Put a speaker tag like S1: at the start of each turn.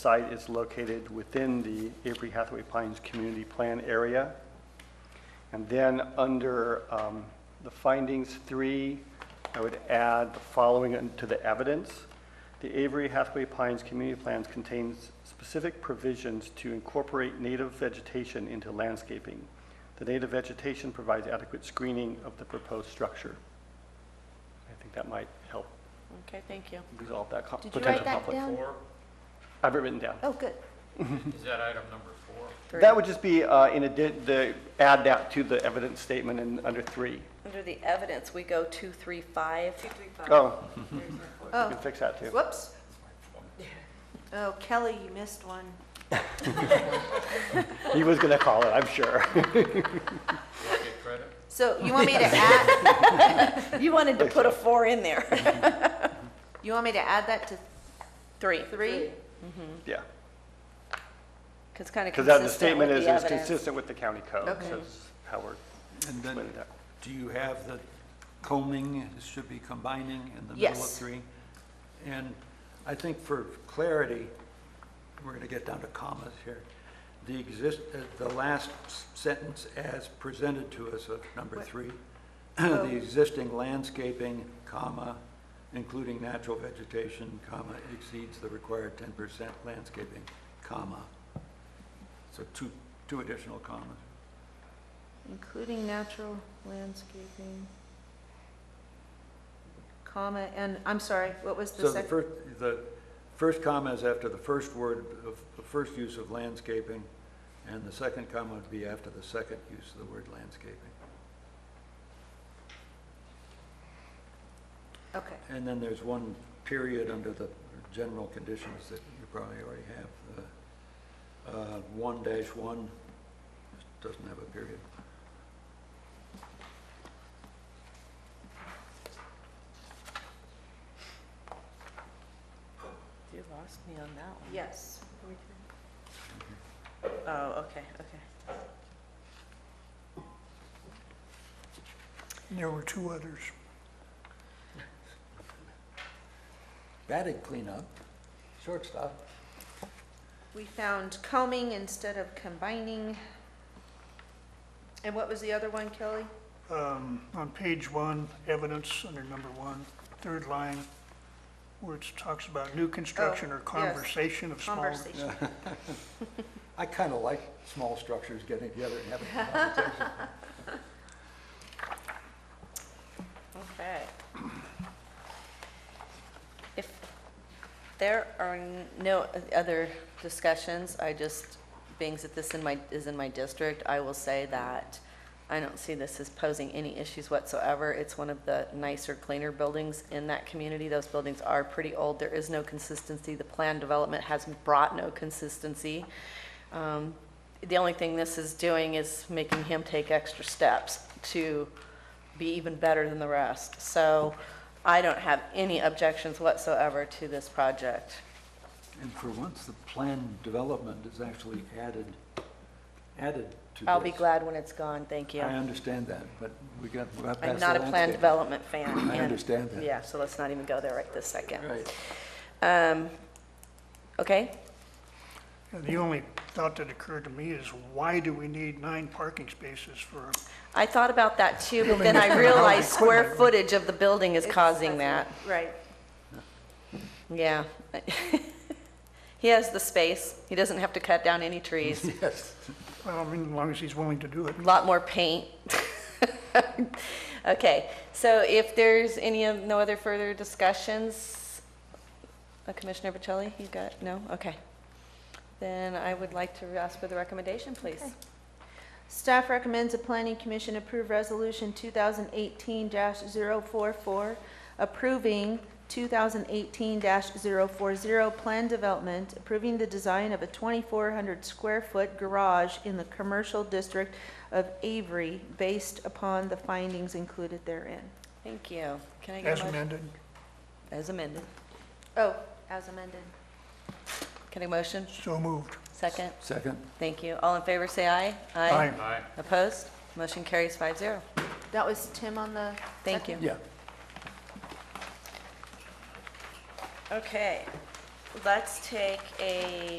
S1: site is located within the Avery Hathaway Pines Community Plan area. And then under um, the findings three, I would add the following to the evidence. The Avery Hathaway Pines Community Plans contains specific provisions to incorporate native vegetation into landscaping. The native vegetation provides adequate screening of the proposed structure. I think that might help
S2: Okay, thank you.
S1: resolve that co-
S3: Did you
S1: potential
S3: write that
S1: conflict.
S3: down?
S4: Four,
S1: I have it written down.
S3: Oh, good.
S4: is that item number four?
S1: That would just be uh, in addi- the, add that to the evidence statement in, under three.
S2: Under the evidence, we go two, three, five. Two, three, five.
S1: Oh, you can
S3: Oh,
S1: fix that too.
S3: whoops. Oh, Kelly, you missed one.
S1: He was going to call it, I'm sure.
S4: Do I get credit?
S3: So you want me to add,
S2: You wanted to put a four in there.
S3: you want me to add that to
S2: Three.
S3: three?
S1: Yeah,
S2: Because kind of
S1: because that, the
S2: consistent with
S1: statement is,
S2: the
S1: is
S2: evidence.
S1: consistent with the county code.
S3: Okay.
S1: So that's how we're
S5: And then,
S1: explaining that.
S5: do you have the combing, it should be combining in the middle of
S3: Yes.
S5: three? And I think for clarity, we're gonna get down to commas here. The exist, uh, the last s- sentence as presented to us of number three, the existing landscaping, comma, including natural vegetation, comma, exceeds the required ten percent landscaping, comma. So two, two additional commas.
S3: Including natural landscaping, comma, and, I'm sorry, what was the
S5: So the
S3: second?
S5: first, the first comma is after the first word of, the first use of landscaping, and the second comma would be after the second use of the word landscaping.
S3: Okay,
S5: And then there's one period under the general conditions that you probably already have. uh, uh, One dash one doesn't have a period.
S2: You lost me on that
S3: yes.
S2: one. Oh, okay, okay.
S6: There were two others.
S5: Batted cleanup, shortstop.
S3: We found combing instead of combining. And what was the other one, Kelly?
S6: Um, On page one, evidence under number one, third line, where it talks about new construction
S3: Oh,
S6: or
S3: yes.
S6: conversation of small.
S3: Conversation.
S5: I kind of like small structures getting together and having a conversation.
S2: Okay. If there are n- no other discussions, I just, being that this in my, is in my district, I will say that I don't see this as posing any issues whatsoever. It's one of the nicer, cleaner buildings in that community. Those buildings are pretty old. There is no consistency. The plan development has brought no consistency. Um, The only thing this is doing is making him take extra steps to be even better than the rest. So I don't have any objections whatsoever to this project.
S5: And for once, the plan development is actually added, added to this.
S2: I'll be glad when it's gone, thank
S5: I
S2: you.
S5: understand that, but we got, we got
S2: I'm
S5: past the
S2: not a plan
S5: landscape.
S2: development fan.
S5: I
S2: and-
S5: understand that.
S2: Yeah, so let's not even go there right this second.
S5: Right.
S2: Um, Okay,
S6: And The only thought that occurred to me is why do we need nine parking spaces for,
S2: I thought about that too, but then I realized square footage of the building is causing that.
S3: Right.
S2: Yeah. He has the space, he doesn't have to cut down any trees.
S5: Yes.
S6: well, I mean, as long as he's willing to do it.
S2: a lot more paint. Okay, so if there's any, of- no other further discussions, uh, Commissioner Bocelli, you got, no? Okay. Then I would like to ask for the recommendation, please.
S3: Okay. Staff recommends the planning commission approve resolution 2018-044, approving 2018-040 plan development, approving the design of a 2,400-square-foot garage in the commercial district of Avery based upon the findings included therein.
S2: Thank you. Can I get
S6: As
S2: a motion?
S6: amended,
S2: As amended.
S3: Oh, as amended.
S2: Can I motion?
S6: so moved.
S2: Second?
S5: Second,
S2: Thank you. All in favor, say aye.
S6: Aye.
S4: Aye.
S2: Opposed? Motion carries five zero.
S3: That was Tim on the
S2: Thank you.
S5: yeah.
S2: Okay. let's take a